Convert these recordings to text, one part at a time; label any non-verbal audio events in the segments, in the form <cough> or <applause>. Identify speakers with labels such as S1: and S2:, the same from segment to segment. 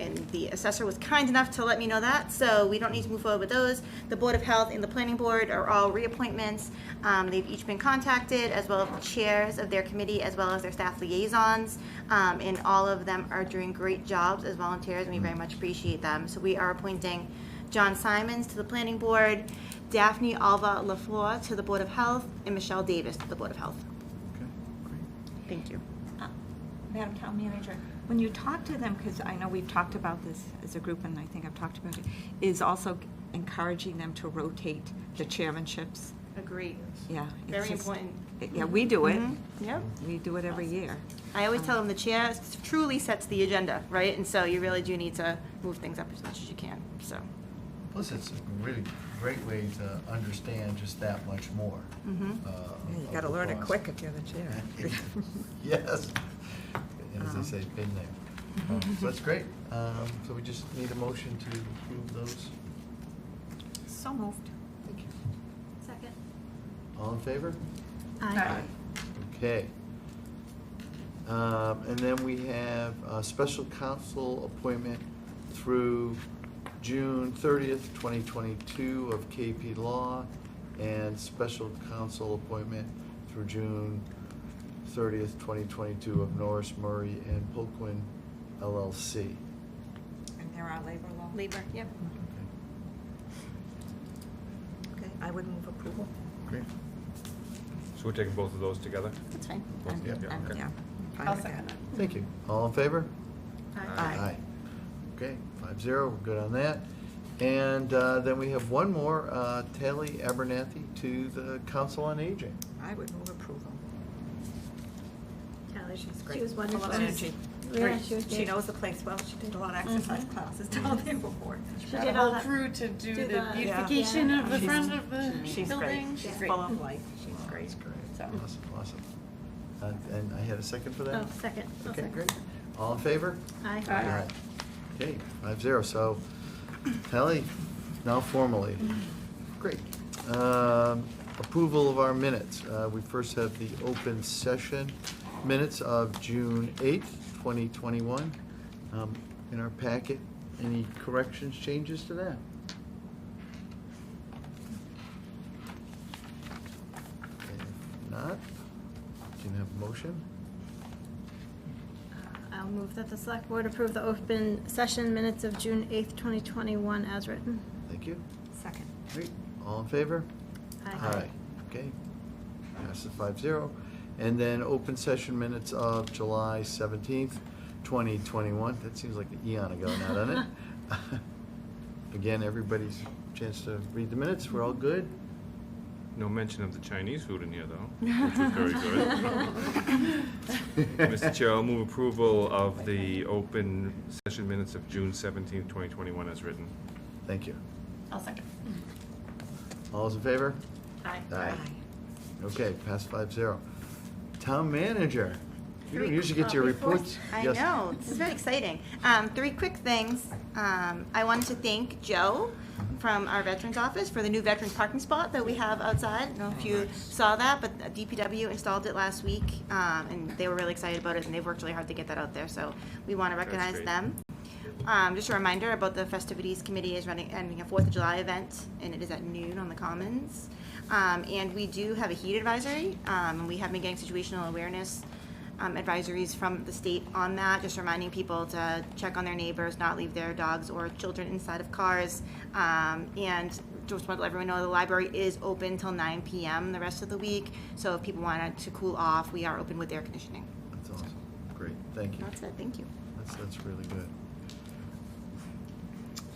S1: and the assessor was kind enough to let me know that, so we don't need to move forward with those. The Board of Health and the Planning Board are all reappointments. Um, They've each been contacted, as well as the chairs of their committee, as well as their staff liaisons. Um, And all of them are doing great jobs as volunteers, and we very much appreciate them. So we are appointing John Simons to the Planning Board, Daphne Alva LaFleur to the Board of Health, and Michelle Davis to the Board of Health.
S2: Okay, great.
S1: Thank you.
S3: Uh, Madam Town Manager, when you talk to them, because I know we've talked about this as a group, and I think I've talked about it, is also encouraging them to rotate the chairmanships.
S1: Agreed.
S3: Yeah. it's
S1: Very
S3: just-
S1: important.
S3: Yeah, we do it.
S1: Mhm. Yep.
S3: We do it every year.
S1: I always tell them the chair s- truly sets the agenda, right? And so you really do need to move things up as much as you can, so.
S2: Plus, it's a really great way to understand just that much more.
S1: Mhm.
S2: uh,
S4: Yeah, You
S2: of
S4: gotta
S2: the
S4: learn it
S2: process.
S4: quick if you're the
S3: <laughs>
S4: chair.
S2: <laughs> Yes, as
S4: Um.
S2: they say, been there. Um, So that's great. Um, So we just need a motion to approve those.
S3: So moved.
S2: Thank you.
S1: Second.
S2: All in favor?
S3: Aye.
S2: Okay. Um, And then we have a special counsel appointment through June thirtieth, twenty twenty-two of KP Law, and special counsel appointment through June thirtieth, twenty twenty-two of Norris Murray and Polkwin LLC.
S3: And there are labor law.
S1: Labor, yep.
S2: Okay,
S4: Okay, I would move approval.
S2: Great.
S5: So we're taking both of those together?
S1: That's fine.
S5: Both of them,
S2: Yeah.
S5: okay.
S4: Yeah. fine
S3: I'll
S4: with
S3: second
S4: that.
S3: that.
S2: Thank you. All in favor?
S4: Aye.
S2: Okay, five zero, we're good on that. And uh, then we have one more, uh, Tally Abernathy to the Council on Aging.
S4: I would move approval.
S3: Kelly, she's
S6: She was
S3: Full of
S6: wonderful.
S3: energy.
S6: Yeah,
S3: Great.
S6: she was
S3: She
S6: good.
S3: knows the place well. She did a lot of exercise classes down there before.
S6: She
S3: Got
S6: did
S3: a
S6: all
S3: whole
S6: that-
S7: crew to do
S6: do
S7: the
S6: the-
S7: beautification
S6: Yeah.
S7: of the
S3: She's-
S7: front of the
S3: She's great.
S7: building.
S3: She's
S6: Yeah.
S3: full of life. She's great.
S2: That's great.
S3: So-
S2: Awesome, awesome. Uh, And I had a second for that?
S6: Oh, second. I'll
S2: Okay,
S6: second.
S2: great. All in favor?
S6: Aye.
S3: Aye.
S2: Okay, five zero, so Tally, now formally. Great. Um, Approval of our minutes. Uh, We first have the open session minutes of June eighth, twenty twenty-one. Um, In our packet, any corrections, changes to that? If Not, can I have a motion?
S6: Uh, I'll move that the select board approve the open session minutes of June 8th, 2021 as written.
S2: Thank you.
S3: Second.
S2: Great. All in favor?
S6: Aye.
S2: Okay. Passes five zero. And then open session minutes of July seventeenth, twenty twenty-one. That seems like an eon ago now, doesn't
S1: <laughs>
S2: it? <laughs> Again, everybody's chance to read the minutes. We're all good?
S5: No mention of the Chinese food in here, though, which was very
S1: <laughs>
S5: good. <laughs> Mr. Chair, I'll move approval of the open session minutes of June seventeenth, twenty twenty-one as written.
S2: Thank you.
S3: I'll second.
S2: All those in favor?
S1: Aye.
S2: Okay, pass five zero. Town manager, you don't usually get your
S1: Uh, before-
S2: reports.
S1: I
S2: Yes.
S1: know, this is very exciting. Um, three quick things. Um, I wanted to thank Joe from our Veterans Office for the new Veterans parking spot that we have outside. I don't know if you saw that, but DPW installed it last week, um, and they were really excited about it, and they've worked really hard to get that out there, so we want to recognize
S5: great.
S1: them. Um, just a reminder about the festivities committee is running, ending a Fourth of July event, and it is at noon on the Commons. Um, and we do have a heat advisory, um, and we have been getting situational awareness um, advisories from the state on that, just reminding people to check on their neighbors, not leave their dogs or children inside of cars. Um, and just want to let everyone know the library is open till nine PM the rest of the week, so if people wanted to cool off, we are open with air conditioning.
S2: That's awesome. Great, thank you.
S1: That's it, thank you.
S2: That's, that's really good.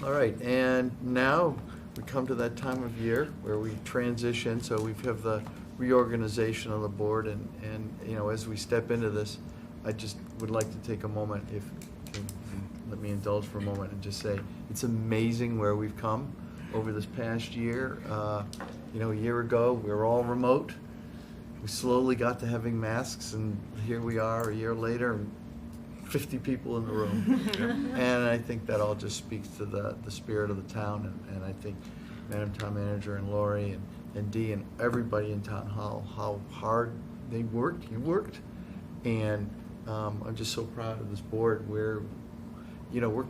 S2: All right, and now we come to that time of year where we transition, so we have the reorganization of the board, and, and, you know, as we step into this, I just would like to take a moment, if, if you let me indulge for a moment and just say, it's amazing where we've come over this past year. Uh, You know, a year ago, we were all remote, we slowly got to having masks, and here we are a year later, and 50 people in the room. and I think that all just speaks to the, the spirit of the town. And, and I think Madam Town Manager and Lori and, and Dee and everybody in Town Hall, how hard they worked, you worked. And um, I'm just so proud of this board where, you know, we're